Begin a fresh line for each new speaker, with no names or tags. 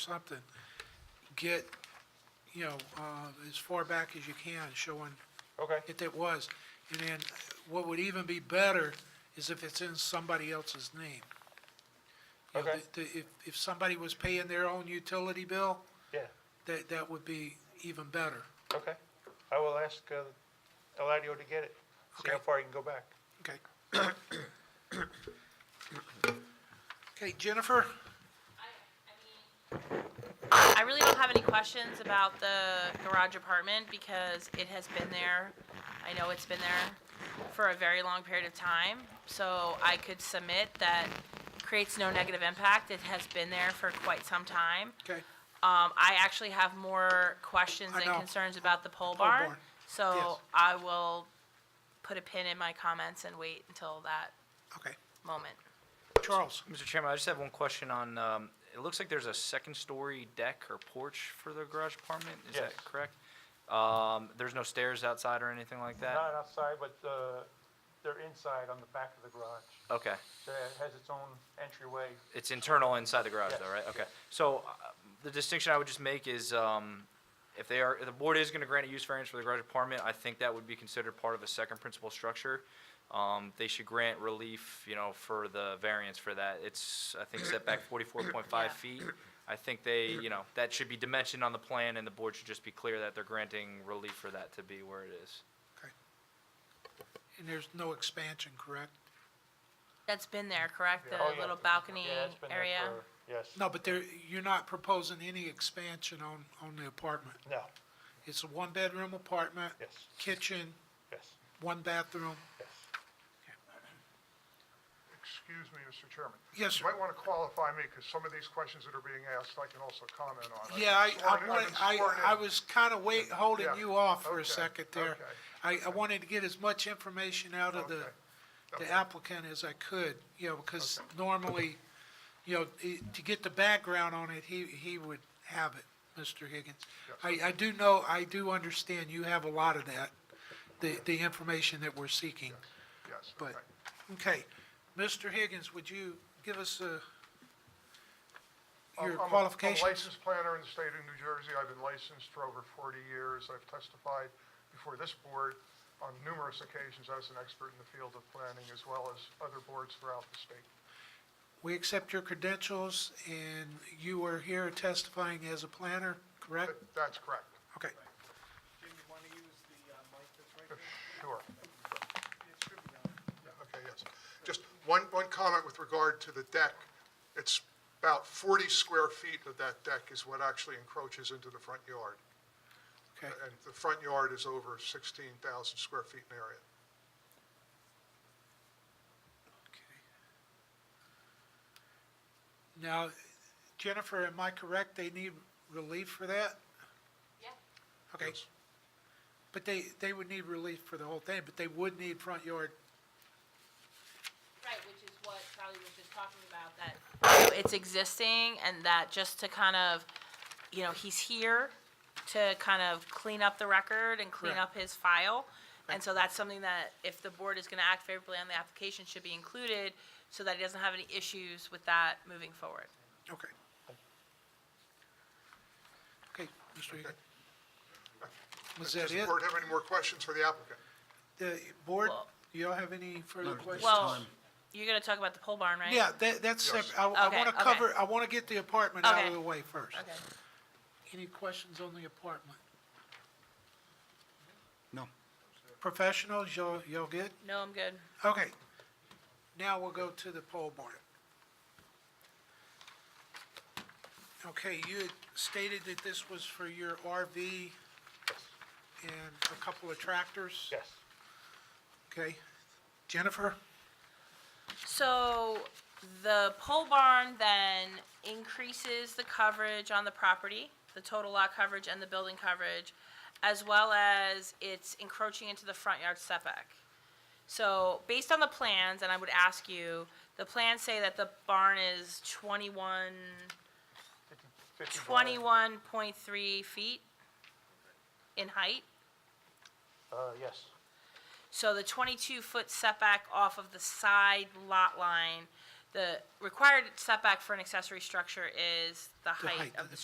something, get, you know, uh, as far back as you can, showing
Okay,
if it was. And then what would even be better is if it's in somebody else's name. You know,
Okay.
the- the- If, if somebody was paying their own utility bill,
yeah,
that, that would be even better.
okay. I will ask uh, Eladio to get it, see how
Okay.
far he can go back.
Okay. Okay, Jennifer?
I really don't have any questions about the garage apartment because it has been there. I know it's been there for a very long period of time, so I could submit that creates no negative impact. It has been there for quite some time.
Okay.
Um, I actually have more questions
I
and
know.
concerns about the pole
Pole
barn,
barn. Yes.
so I will put a pin in my comments and wait until that
Okay.
moment.
Charles?
Mr. Chairman, I just have one question on, um, it looks like there's a second-story deck or porch for the garage apartment, is
Yes.
that correct? Um, There's no stairs outside or anything like that?
Not outside, but uh, they're inside on the back of the garage.
Okay,
So it has its own entryway.
it's internal inside the garage
Yes.
though, right? Okay, so uh, the distinction I would just make is um, if they are, if the board is going to grant a use variance for the garage apartment, I think that would be considered part of a second principal structure. Um, They should grant relief, you know, for the variance for that. It's, I think, setback forty-four point five
Yeah.
feet. I think they, you know, that should be dimensioned on the plan, and the board should just be clear that they're granting relief for that to be where it is.
Okay. And there's no expansion, correct?
That's been there, correct?
Yeah. Oh,
The
yeah.
little balcony
Yeah, it's been there
area?
for- Yes,
No, but there, you're not proposing any expansion on, on the apartment.
no,
It's a one-bedroom apartment.
Yes.
Kitchen,
yes,
one bathroom.
yes.
Excuse me, Mr. Chairman.
Yes, sir.
You might want to qualify me, because some of these questions that are being asked, I can also comment on. I've
Yeah, I,
been sworn
I
in-
wanted,
I've been
I,
sworn in.
I was kind of wait, holding
Yeah,
you off for a
okay,
second there.
okay.
I, I wanted to get as much information out of the,
Okay,
the
okay.
applicant as I could, you know, because normally, you know, i- to get the background on it, he, he would have it, Mr. Higgins. I, I do know, I do understand you have a lot of that, the, the information that we're seeking.
Yes,
But,
okay.
okay, Mr. Higgins, would you give us uh, your
I'm- I'm a- I'm a
qualifications?
licensed planner in the state of New Jersey. I've been licensed for over 40 years. I've testified before this board on numerous occasions as an expert in the field of planning, as well as other boards throughout the state.
We accept your credentials, and you are here testifying as a planner, correct?
That- That's correct.
Okay,
Sure. Yeah, Okay, yes. Just one, one comment with regard to the deck. It's about 40 square feet of that deck is what actually encroaches into the front yard.
okay.
And the front yard is over 16,000 square feet in area.
Okay. Now, Jennifer, am I correct, they need relief for that? Yeah. Okay,
Yes.
but they, they would need relief for the whole thing, but they would need front yard,
Right, which is what Charlie was just talking about, that. It's existing and that just to kind of, you know, he's here to kind of clean up the record and clean
Correct.
up his file. And so that's something that if the board is gonna act favorably on the application should be included so that he doesn't have any issues with that moving forward.
okay. Okay, Mr. Higgins. Was that
Does the
it?
board have any more questions for the applicant?
The board,
Well-
do y'all have any further questions?
Well, you're gonna talk about the pole barn, right?
Yeah, that, that's
Yes.
separate. I, I
Okay,
wanna
okay.
cover, I wanna get the apartment out of
Okay.
the way first.
Okay.
Any questions on the apartment?
No.
Professionals, y'all, y'all good?
No, I'm good.
Okay. Now we'll go to the poll barn. Okay, you had stated that this was for your RV and a couple of tractors?
Yes,
Okay. Jennifer?
So the pole barn then increases the coverage on the property, the total lot coverage and the building coverage, as well as it's encroaching into the front yard setback. So based on the plans, and I would ask you, the plans say that the barn is 21,
50 by-
21.3 feet in height.
Uh, yes,
So the 22-foot setback off of the side lot line The required setback for an accessory structure is the height
height
of
of
the
the